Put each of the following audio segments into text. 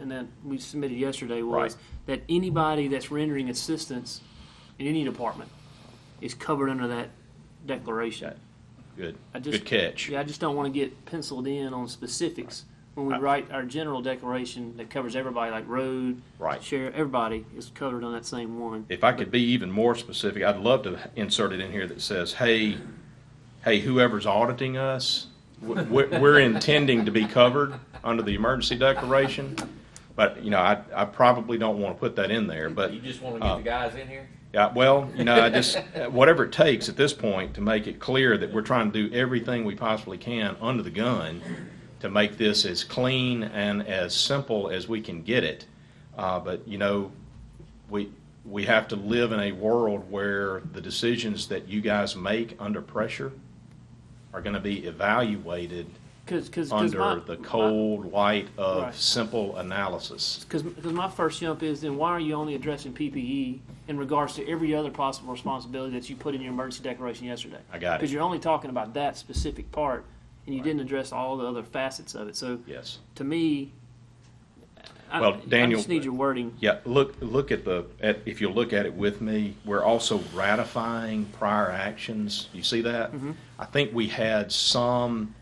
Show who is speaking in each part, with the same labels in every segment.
Speaker 1: and that we submitted yesterday was
Speaker 2: Right.
Speaker 1: that anybody that's rendering assistance in any department is covered under that declaration.
Speaker 2: Good,
Speaker 1: I just-
Speaker 2: good catch.
Speaker 1: Yeah, I just don't want to get penciled in on specifics when we
Speaker 2: Right.
Speaker 1: write our general declaration that covers everybody, like road,
Speaker 2: Right.
Speaker 1: share, everybody is covered on that same one.
Speaker 2: If I could be even more specific, I'd love to insert it in here that says, hey, hey, whoever's auditing us, w- we're we're intending to be covered under the emergency declaration. But, you know, I, I probably don't want to put that in there, but.
Speaker 3: You just want to get
Speaker 2: uh,
Speaker 3: the guys in here?
Speaker 2: Yeah, well, you know, I just, whatever it takes at this point to make it clear that we're trying to do everything we possibly can under the gun to make this as clean and as simple as we can get it. Uh, but, you know, we, we have to live in a world where the decisions that you guys make under pressure are gonna be evaluated
Speaker 1: Cause, cause, 'cause my-
Speaker 2: under the cold light
Speaker 1: Right.
Speaker 2: of simple analysis.
Speaker 1: Because my first jump is then why are you only addressing PPE in regards to every other possible responsibility that you put in your emergency declaration yesterday?
Speaker 2: I got it.
Speaker 1: Because you're only talking about that specific part, and you didn't address all the other facets of it. So
Speaker 2: Yes.
Speaker 1: to me, I,
Speaker 2: Well,
Speaker 1: I
Speaker 2: Daniel-
Speaker 1: just need your wording.
Speaker 2: Yeah, look, look at the, at, if you look at it with me, we're also ratifying prior actions. You see that?
Speaker 1: Mm-hmm.
Speaker 2: I think we had some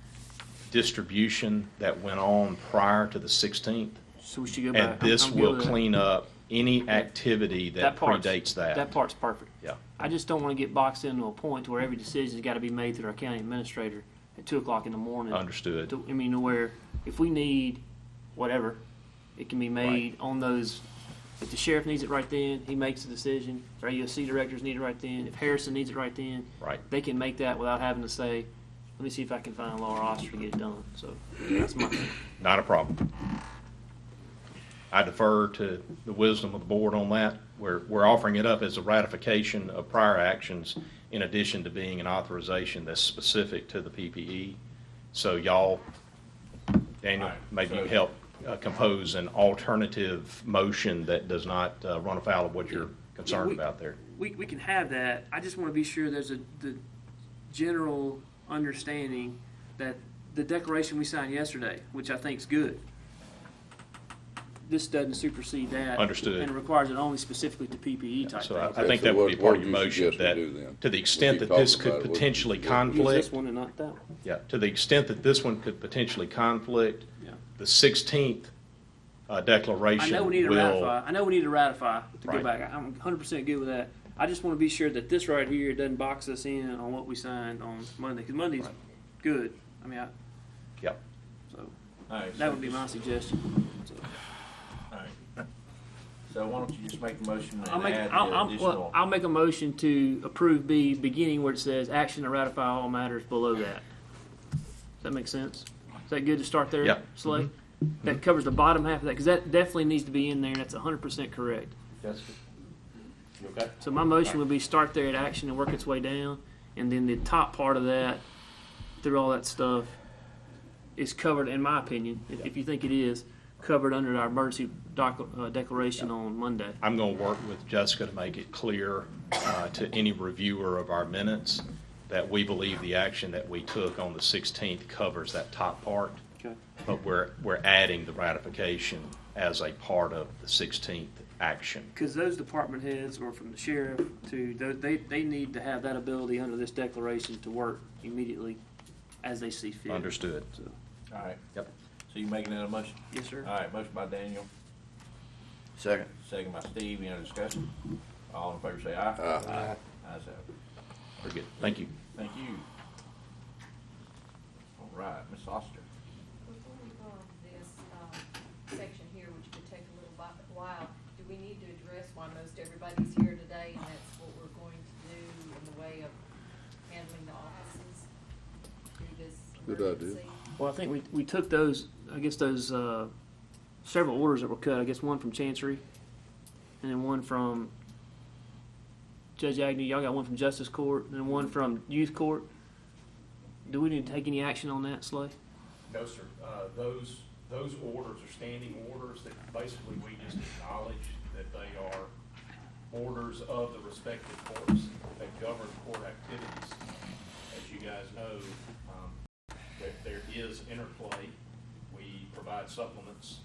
Speaker 2: distribution that went on prior to the 16th.
Speaker 1: So we should go
Speaker 2: And
Speaker 1: back. I'm-
Speaker 2: this
Speaker 1: I'm good
Speaker 2: will
Speaker 1: with that.
Speaker 2: clean up any activity that
Speaker 1: part's-
Speaker 2: predates
Speaker 1: That
Speaker 2: that.
Speaker 1: part's perfect.
Speaker 2: Yeah.
Speaker 1: I just don't want to get boxed into a point where every decision's got to be made through our county administrator at two o'clock in the morning.
Speaker 2: Understood.
Speaker 1: To- I mean, to where if we need whatever, it can be made on those. If the sheriff needs it right then, he makes the decision. If our AUC directors need it right then, if Harrison needs it right then,
Speaker 2: Right.
Speaker 1: they can make that without having to say, "Let me see if I can find Laura Oster to get it done." So that's my.
Speaker 2: Not a problem. I defer to the wisdom of the board on that. We're, we're offering it up as a ratification of prior actions in addition to being an authorization that's specific to the PPE. So y'all, Daniel,
Speaker 3: All right,
Speaker 2: maybe you
Speaker 3: so-
Speaker 2: help uh, compose an alternative motion that does not uh, run afoul of what you're concerned
Speaker 1: we-
Speaker 2: about there.
Speaker 1: we, we can have that. I just want to be sure there's a the general understanding that the declaration we signed yesterday, which I think is good, this doesn't supersede that.
Speaker 2: Understood.
Speaker 1: And it requires it only specifically to PPE type
Speaker 2: So I-
Speaker 1: things.
Speaker 2: I think
Speaker 4: so
Speaker 2: that would be
Speaker 4: what-
Speaker 2: part
Speaker 4: what
Speaker 2: of your
Speaker 4: do you
Speaker 2: motion
Speaker 4: suggest we
Speaker 2: that,
Speaker 4: do then?
Speaker 2: to the
Speaker 4: We
Speaker 2: extent
Speaker 4: keep
Speaker 2: that this
Speaker 4: talking
Speaker 2: could
Speaker 4: about it. What-
Speaker 2: potentially
Speaker 4: what-
Speaker 1: Use
Speaker 2: conflict.
Speaker 1: this one and not that one.
Speaker 2: Yeah, to the extent that this one could potentially conflict,
Speaker 1: Yeah.
Speaker 2: the 16th uh,
Speaker 1: I
Speaker 2: declaration
Speaker 1: know
Speaker 2: will.
Speaker 1: we need to ratify. I know we need to ratify to go
Speaker 2: Right.
Speaker 1: back. I'm 100% good with that. I just want to be sure that this right here doesn't box us in on what we signed on Monday, because Monday's good. I mean, I,
Speaker 2: Yep.
Speaker 1: so
Speaker 3: All right,
Speaker 1: that
Speaker 3: so
Speaker 1: would be
Speaker 3: just-
Speaker 1: my suggestion. So.
Speaker 3: all right. So why don't you just make a motion
Speaker 1: I'll
Speaker 3: and
Speaker 1: make,
Speaker 3: add
Speaker 1: I'll,
Speaker 3: the
Speaker 1: I'll, well,
Speaker 3: additional?
Speaker 1: I'll make a motion to approve B, beginning where it says action to ratify all matters below that. Does that make sense? Is that good to start there?
Speaker 2: Yeah.
Speaker 1: Slay? That covers the bottom half of that, because that definitely needs to be in there, and that's hundred percent correct.
Speaker 3: That's good. You Okay.
Speaker 1: So my motion would be start there at action and work its way down, and then the top part of that, through all that stuff, is covered, in my opinion, if, if you think it is, covered under our emergency doc, uh, declaration on Monday.
Speaker 2: I'm going to work with Jessica to make it clear uh, to any reviewer of our minutes that we believe the action that we took on the 16th covers that top part,
Speaker 1: Okay.
Speaker 2: but we're, we're adding the ratification as a part of the 16th action.
Speaker 1: Because those department heads or from the sheriff to, tho- they, they need to have that ability under this declaration to work immediately as they see fit.
Speaker 2: Understood?
Speaker 1: So,
Speaker 3: All right.
Speaker 2: Yep.
Speaker 3: So you making that a motion?
Speaker 1: Yes, sir.
Speaker 3: All right, motion by Daniel,
Speaker 4: Second.
Speaker 3: second by Steve, any other discussion? All in favor say aye.
Speaker 4: Aye.
Speaker 3: Ayes have it.
Speaker 2: We're good. Thank you.
Speaker 3: Thank you. All right, Ms. Oster.
Speaker 5: Before we go on to this um, section here, which could take a little bi- while, do we need to address why most everybody's here today, and that's what we're going to do in the way of handling the offices through this
Speaker 4: Good idea.
Speaker 5: emergency?
Speaker 1: Well, I think we, we took those, I guess those, uh, several orders that were cut, I guess one from Chancery, and then one from Judge Agnew, y'all got one from Justice Court, and then one from Youth Court. Do we need to take any action on that, Slay?
Speaker 6: No, sir. Uh, Those, those orders are standing orders that basically we just acknowledge that they are orders of the respective courts that govern court activities. As you guys know, um, there, there is interplay. We provide supplements